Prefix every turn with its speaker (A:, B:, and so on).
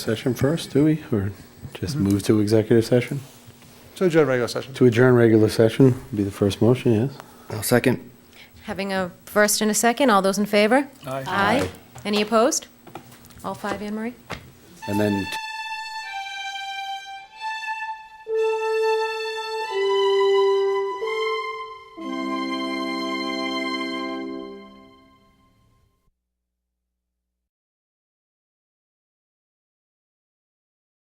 A: Session first, do we, or just move to executive session?
B: So adjourn regular session.
A: To adjourn regular session would be the first motion, yes?
C: I'll second.
D: Having a first and a second, all those in favor? Aye. Any opposed? All five, Anne Marie?
A: And then